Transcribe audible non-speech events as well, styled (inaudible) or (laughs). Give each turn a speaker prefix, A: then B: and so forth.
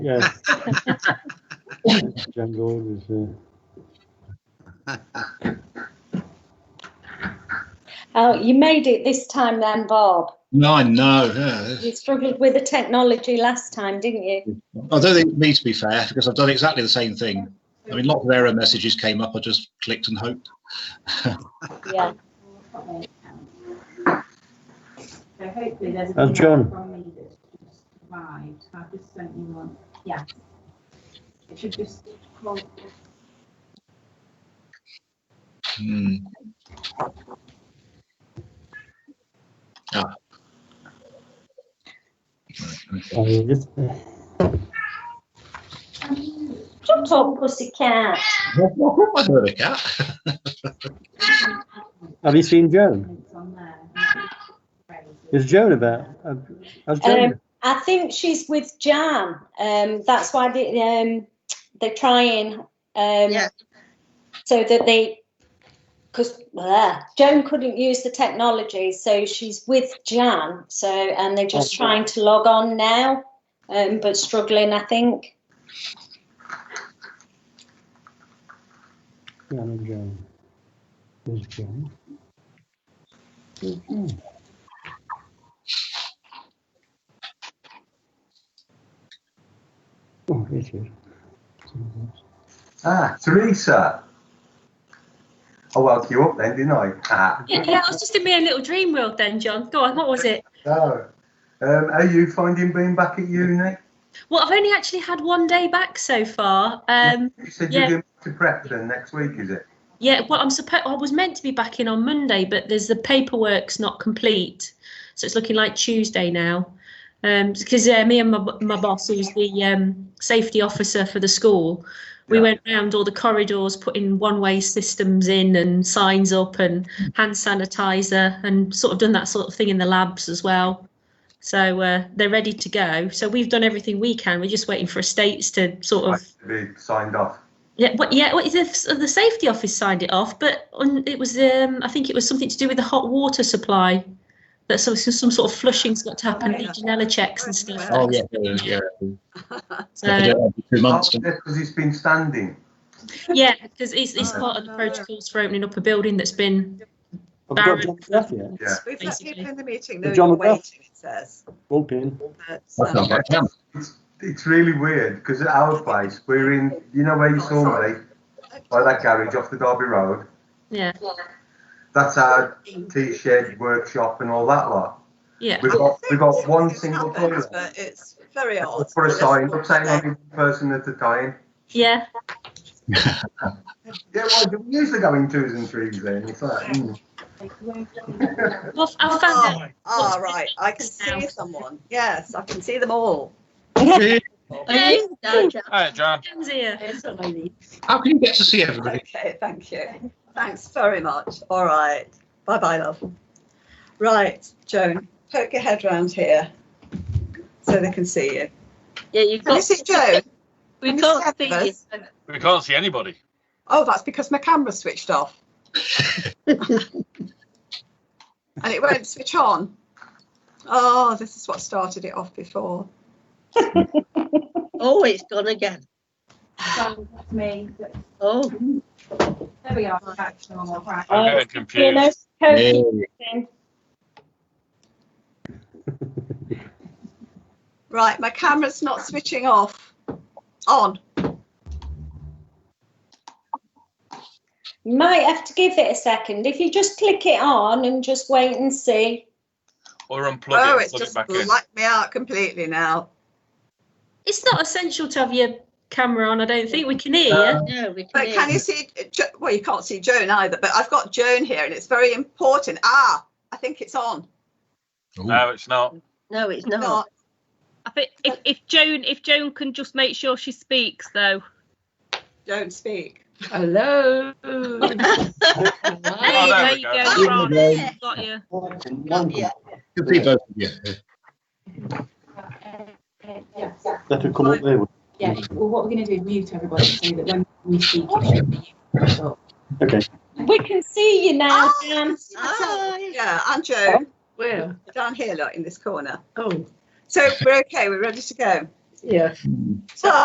A: Yeah. John Gold is, uh,
B: Oh, you made it this time then, Bob.
C: No, I know. yeah.
B: You struggled with the technology last time, didn't you?
C: I don't think it's me to be fair because I've done exactly the same thing. I mean, lots of error messages came up. I just clicked and hoped.
B: Yeah.
D: So hopefully there's.
A: Oh, John.
D: email From me that's just arrived. I've just sent you one. Yeah. It should just. well,
C: Hmm. Ah. Right, okay.
A: I mean, just-
B: Shut up, pussycat.
C: I heard a cat.
A: Have you seen Joan?
D: It's on there.
A: Is Joan about? Uh, Has Joan?
B: Um, I think she's with Jan. Um, that's why they, um, they're trying. Um,
E: Yeah.
B: So that they, because Joan couldn't use the technology, so she's with Jan. So and they're just
A: Oh.
B: trying to log on now, um, but struggling, I think.
A: Jan and Joan. There's Joan. Oh, here she is.
F: Ah, Teresa. I woke you up then, didn't I? Ah,
G: Yeah, yeah, I was just in my own little dream world then, John. Go on, what was it?
F: so, um, are you finding being back at uni?
G: Well, I've only actually had one day back so far. Um,
F: You said
G: Yeah.
F: you're going to Preston next week, is it?
G: yeah, well, I'm supposed I was meant to be back in on Monday, but there's the paperwork's not complete, so it's looking like Tuesday now. Um, because uh, me and my, b- my boss, who's the um, safety officer for the school, we
F: Yeah.
G: went round all the corridors, putting one-way systems in and signs up and hand sanitizer, and sort of done that sort of thing in the labs as well. So uh, they're ready to go. So we've done everything we can. We're just waiting for estates to sort of
F: Like to be signed off.
G: yeah, what, yeah. What, the, the safety office signed it off, but on, it was um, I think it was something to do with the hot water supply. That some some some sort of flushing's got to happen,
E: Oh,
G: legionella checks and stuff.
C: Oh yeah, yeah, yeah. I
G: So,
C: don't know, two months.
F: Oh, yeah, because it's been standing.
G: yeah, because it's,
E: Oh,
G: it's part of the protocols for opening up a building that's been.
A: Have we got John McGrath yet?
F: Yeah.
E: We've got people in the meeting,
A: The
E: no,
A: John
E: you're
A: McGrath.
E: waiting, it says.
A: Bullpen.
E: That's,
C: That's not
E: um,
C: bad. Yeah.
F: It's, it's really weird because at our place, we're in, you know where you saw me? By that garage off the Derby Road.
G: Yeah,
F: That's our tea shed, workshop, and all that lot.
G: yeah,
F: We've
E: I
F: got,
E: think
F: we've got one
E: it's
F: single
E: happened,
F: toilet.
E: But it's very odd.
F: Put a
E: It's
F: sign,
E: not
F: up saying
E: safe.
F: only one person at a time.
G: yeah.
F: Yeah, well, do we usually go in twos and threes then? It's like, mm.
G: Well, I found
E: Oh, ah, right, I can see someone, yes, I can see them all.
G: out. Hey,
H: Hi, John.
G: John's here.
C: How can you get to see everybody?
E: Okay, thank you, thanks very much, all right, bye-bye, love. Right, Joan, poke your head round here, so they can see you.
I: Yeah, you've
E: And
I: got.
E: this is Joan,
I: We
E: and this
I: can't
E: is
I: see
E: Emma.
I: you.
H: We can't see anybody.
E: oh, that's because my camera
I: (laughs)
E: switched off. And it won't switch on. Oh, this is what started it off before.
I: Oh, it's gone again.
D: So that's me. There
I: Oh,
D: we are. Back to normal. Right.
B: Oh,
H: I'm getting
B: You know,
H: confused.
B: Cokie,
E: Right, my camera's not switching off. On.
B: you might have to give it a second. If you just click it on and just wait and see.
H: Or unplug
E: Oh,
H: it,
E: it's
H: plug it
E: just
H: back in.
E: blacked me out completely now.
G: It's not essential to have your camera on. I don't think we can hear. you.
I: no, we can
E: But can
I: hear.
E: you see? Jo- Well, you can't see Joan either. But I've got Joan here, and it's very important. Ah, I think it's on.
C: Ooh,
H: No, it's not.
I: No, it's not.
E: Not.
I: I think if, if Joan, if Joan can just make sure she speaks though.
E: Don't speak.
I: Hello.
H: Oh, there
I: there
H: we
I: you
H: go.
I: go.
H: Oh,
I: Grant,
C: there.
I: Got you.
A: That
C: you can see both of you.
D: Yes.
A: will come up there. wouldn't
D: Yeah. Well, what we're going to do is mute everybody so that when we speak, it should be you.
A: it? Okay.
B: We can see you now,
E: Ah,
B: Jan.
I: Hi.
E: Yeah, and Joan
I: Where?
E: down here, like in this corner.
I: Oh.
E: So we're okay. We're ready to go. Yeah.
C: Mm.
E: So